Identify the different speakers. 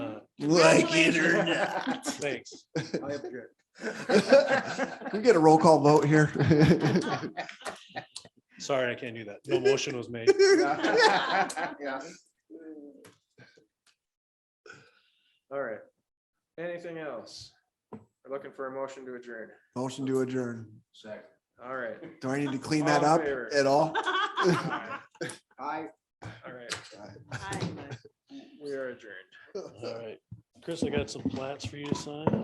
Speaker 1: like it or not.
Speaker 2: Thanks.
Speaker 3: I object.
Speaker 1: Can we get a roll call vote here?
Speaker 2: Sorry, I can't do that. No motion was made.
Speaker 3: Yeah. All right. Anything else? We're looking for a motion to adjourn.
Speaker 1: Motion to adjourn.
Speaker 3: Second. All right.
Speaker 1: Do I need to clean that
Speaker 3: All in
Speaker 1: up
Speaker 3: favor?
Speaker 1: at all?
Speaker 3: Aye. All right,
Speaker 4: Hi.
Speaker 3: we are adjourned.
Speaker 2: All right. Chris, I got some plats for you to sign.